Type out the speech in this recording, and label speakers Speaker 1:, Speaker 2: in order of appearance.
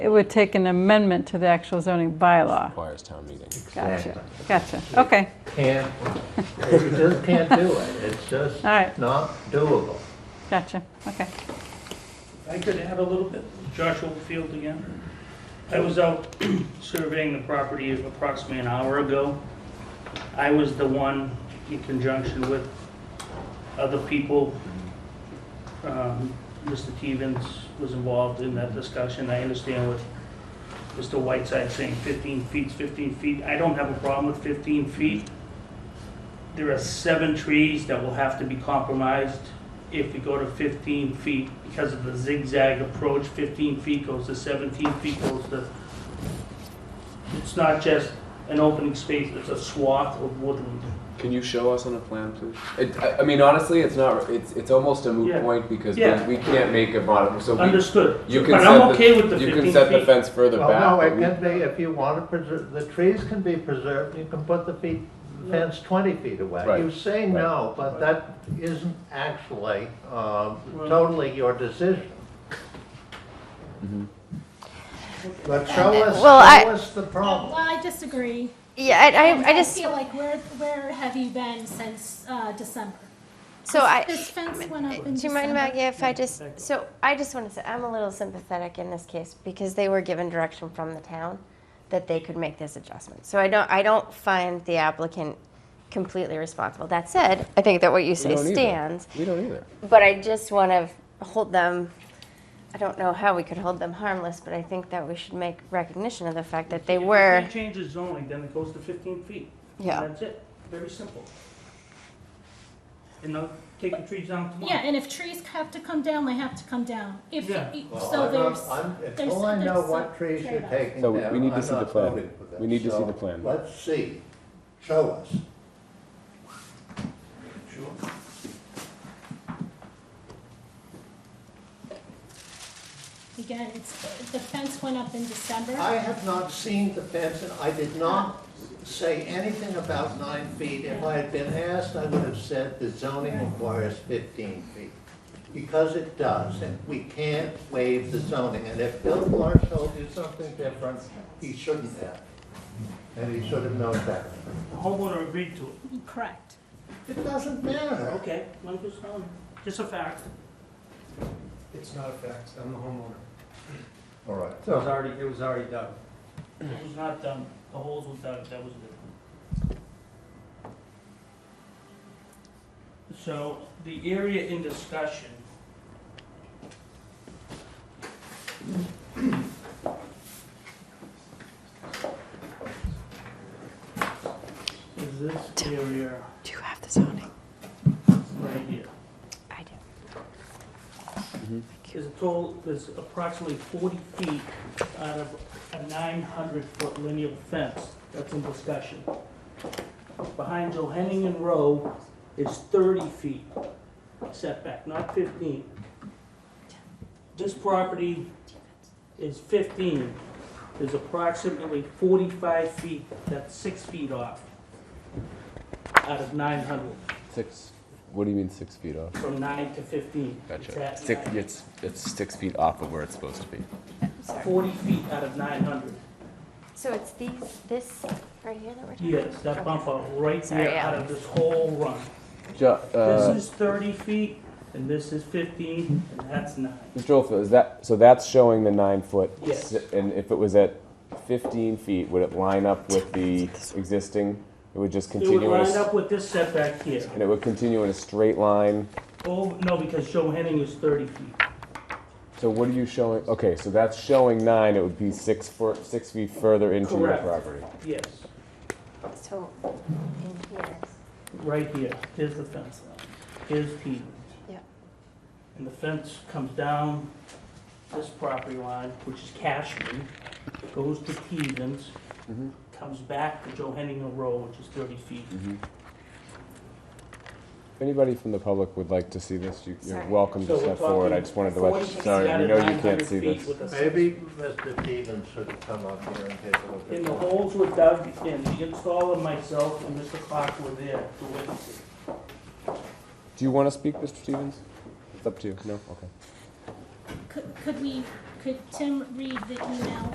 Speaker 1: It would take an amendment to the actual zoning bylaw.
Speaker 2: requires town meeting.
Speaker 1: Gotcha, gotcha. Okay,
Speaker 3: Can't, you just can't do it. It's just
Speaker 1: all right,
Speaker 3: not doable.
Speaker 1: gotcha, okay.
Speaker 4: I could add a little bit, Joshua Field again. I was out surveying the property approximately an hour ago. I was the one, in conjunction with other people, um, Mr. Stevens was involved in that discussion. I understand what Mr. Whiteside saying, 15 feet, 15 feet. I don't have a problem with 15 feet. There are seven trees that will have to be compromised if we go to 15 feet, because of the zigzag approach, 15 feet goes to 17 feet goes to, it's not just an opening space, it's a swath of woodland.
Speaker 2: Can you show us on a plan, please? It, I, I mean, honestly, it's not. It's it's almost a moot
Speaker 4: Yeah.
Speaker 2: point because
Speaker 4: Yeah.
Speaker 2: we, we can't make a mod. So we,
Speaker 4: Understood.
Speaker 2: you can
Speaker 4: But
Speaker 2: set
Speaker 4: I'm
Speaker 2: the,
Speaker 4: okay with the
Speaker 2: you
Speaker 4: 15
Speaker 2: can set the
Speaker 4: feet.
Speaker 2: fence further
Speaker 3: Well,
Speaker 2: back.
Speaker 3: no,
Speaker 2: but
Speaker 3: it
Speaker 2: we-
Speaker 3: can be, if you want to preserve, the trees can be preserved, you can put the feet, fence 20 feet away.
Speaker 2: Right,
Speaker 3: You say
Speaker 2: right.
Speaker 3: no, but that isn't actually um,
Speaker 4: Well-
Speaker 3: totally your decision.
Speaker 2: Mhm.
Speaker 3: But show us, show
Speaker 5: Well, I-
Speaker 3: us the
Speaker 6: Well,
Speaker 3: problem.
Speaker 6: I disagree.
Speaker 5: Yeah, I, I, I just,
Speaker 6: feel like, where, where have you been since uh, December?
Speaker 5: so I,
Speaker 6: This fence went up in
Speaker 5: do you mind,
Speaker 6: December.
Speaker 5: Maggie, if I just, so I just want to say, I'm a little sympathetic in this case because they were given direction from the town that they could make this adjustment. So I don't, I don't find the applicant completely responsible. That said, I think that what you say
Speaker 2: don't either.
Speaker 5: stands.
Speaker 2: we don't either.
Speaker 5: But I just want to hold them, I don't know how we could hold them harmless, but I think that we should make recognition of the fact that they were,
Speaker 4: If it changes zoning, then it goes to 15 feet.
Speaker 5: yeah.
Speaker 4: That's it, very simple. And I'll take the trees down tomorrow.
Speaker 6: Yeah, and if trees have to come down, they have to come down. If,
Speaker 4: Yeah.
Speaker 6: e-
Speaker 3: Well,
Speaker 6: so
Speaker 3: I'm not-
Speaker 6: there's,
Speaker 3: I'm-
Speaker 6: there's-
Speaker 3: Until I know
Speaker 6: there's
Speaker 3: what
Speaker 6: some
Speaker 3: trees you're
Speaker 6: trade-off.
Speaker 3: taking
Speaker 2: So we-
Speaker 3: down,
Speaker 2: we need to
Speaker 3: I'm
Speaker 2: see the
Speaker 3: not
Speaker 2: plan.
Speaker 3: voting for this.
Speaker 2: We need to see
Speaker 3: So
Speaker 2: the plan.
Speaker 3: Let's see, show us.
Speaker 6: again, it's, the fence went up in December.
Speaker 3: I have not seen the fence, and I did not say anything about nine feet. If I had been asked, I would have said the zoning requires fifteen feet, because it does, and we can't waive the zoning. And if Bill Marsh told you something different, he shouldn't have, and he should have known better.
Speaker 4: The homeowner agreed to it.
Speaker 6: Correct.
Speaker 3: It doesn't matter.
Speaker 4: Okay, I'm just telling you, just a fact.
Speaker 7: It's not a fact, I'm the homeowner.
Speaker 3: All right,
Speaker 7: It was already, it was already done.
Speaker 4: It was not done, the holes were dug, that was different. So, the area in discussion. Is this area
Speaker 5: Do you have the zoning?
Speaker 4: right here?
Speaker 5: I do.
Speaker 4: There's a total, there's approximately 40 feet out of a 900-foot linear fence that's in discussion. Behind Johanningen Row is 30 feet setback, not 15. This property is 15. There's approximately 45 feet, that's six feet off, out of 900,
Speaker 2: Six. What do you mean six feet off?
Speaker 4: from 9 to 15. It's
Speaker 2: Gotcha.
Speaker 4: at
Speaker 2: Six.
Speaker 4: 9.
Speaker 2: It's it's six feet off of where it's supposed to be.
Speaker 4: Forty feet out of nine hundred.
Speaker 5: So it's these, this right here that we're talking about?
Speaker 4: Yes, that bump out right
Speaker 5: Sorry,
Speaker 4: there out of this whole run.
Speaker 2: Jo-
Speaker 4: This
Speaker 2: uh,
Speaker 4: is thirty feet, and this is fifteen, and that's nine.
Speaker 2: Mr. Olfa, is that so? That's showing the nine foot.
Speaker 4: Yes.
Speaker 2: s- And if it was at fifteen feet, would it line up with the existing? It would just
Speaker 4: It
Speaker 2: continue.
Speaker 4: would
Speaker 2: in a
Speaker 4: line
Speaker 2: s-
Speaker 4: up with this setback here.
Speaker 2: and it would continue in a straight line.
Speaker 4: Oh, no, because Joe Henning is thirty feet.
Speaker 2: So what are you showing? Okay, so that's showing nine. It would be six foot, six feet further into
Speaker 4: Correct.
Speaker 2: your property.
Speaker 4: Yes,
Speaker 5: So in here,
Speaker 4: right here. Here's the fence line. Here's Peter's.
Speaker 5: Yeah.
Speaker 4: And the fence comes down this property line, which is Cashman, goes to Stevens,
Speaker 2: Mhm.
Speaker 4: comes back to Joe Henning Road, which is thirty feet.
Speaker 2: If Mm-hmm. anybody from the public would like to see this, you, you're
Speaker 5: Sorry.
Speaker 2: welcome
Speaker 4: So
Speaker 2: to
Speaker 4: we're
Speaker 2: step forward. I
Speaker 4: talking
Speaker 2: just wanted to let
Speaker 4: 40
Speaker 2: you. Sorry,
Speaker 4: out
Speaker 2: we
Speaker 4: of
Speaker 2: know you
Speaker 4: 900
Speaker 2: can't see
Speaker 4: feet
Speaker 2: this.
Speaker 4: with a-
Speaker 3: Maybe Mr. Stevens should come up here and take a look at
Speaker 4: And the
Speaker 3: this.
Speaker 4: holes were dug in, the installer, myself, and Mr. Clark were there to witness it.
Speaker 2: Do you want to speak, Mr. Stevens? It's up to you. No. Okay.
Speaker 6: Could, could we, could Tim read the email